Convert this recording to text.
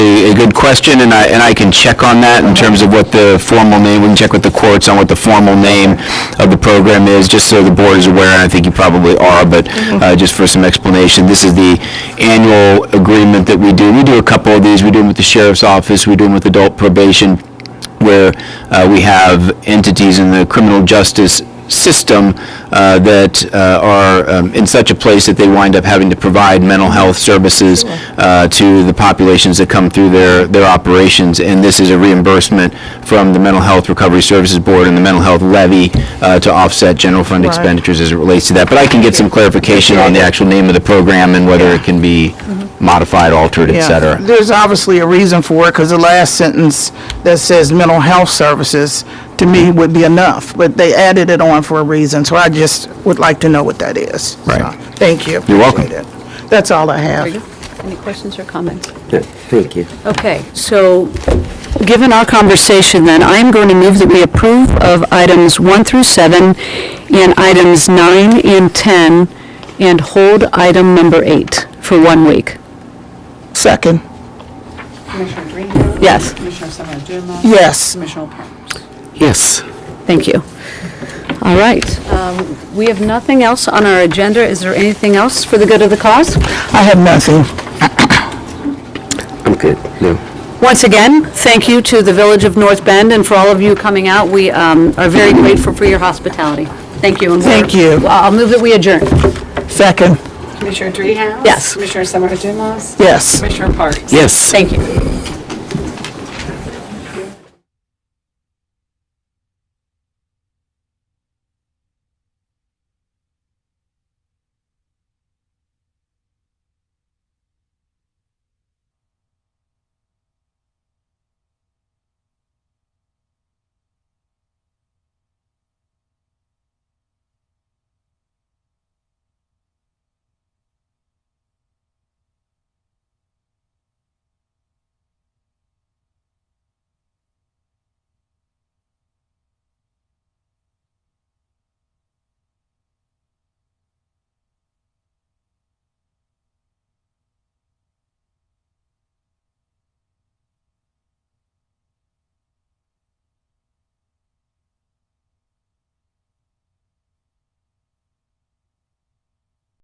good question, and I, and I can check on that in terms of what the formal name, we can check with the courts on what the formal name of the program is, just so the board is aware, and I think you probably are, but uh, just for some explanation, this is the annual agreement that we do. We do a couple of these, we do them with the sheriff's office, we do them with adult probation, where uh, we have entities in the criminal justice system uh, that uh, are um, in such a place that they wind up having to provide mental health services uh, to the populations that come through their, their operations. And this is a reimbursement from the Mental Health Recovery Services Board and the Mental Health Levy uh, to offset general fund expenditures as it relates to that. But I can get some clarification on the actual name of the program and whether it can be modified, altered, et Yeah. cetera. There's obviously a reason for it, because the last sentence that says mental health services, to me, would be enough, but they added it on for a reason, so I just would like to know what that is. Right. So, Thank you. You're welcome. Appreciate it. That's all I have. Any questions or comments? Thank you. Okay, so, given our conversation then, I am going to move that we approve of items 1 through 7, and items 9 and 10, and hold item number 8 for one week. Second, Commissioner Greenfield? Yes. Commissioner Summer Dumas? yes. Commissioner O'Connor? Yes. Thank you. All right. um, We have nothing else on our agenda. Is there anything else for the good of the cause? I have nothing. I'm good. No. Once again, thank you to the Village of North Bend and for all of you coming out. We um, are very grateful for your hospitality. Thank you. and we're- Thank you. I'll move that we adjourn. Second, Commissioner Dreehouse? Yes. Commissioner Summer Dumas? yes. Commissioner Parks? Yes. Thank you.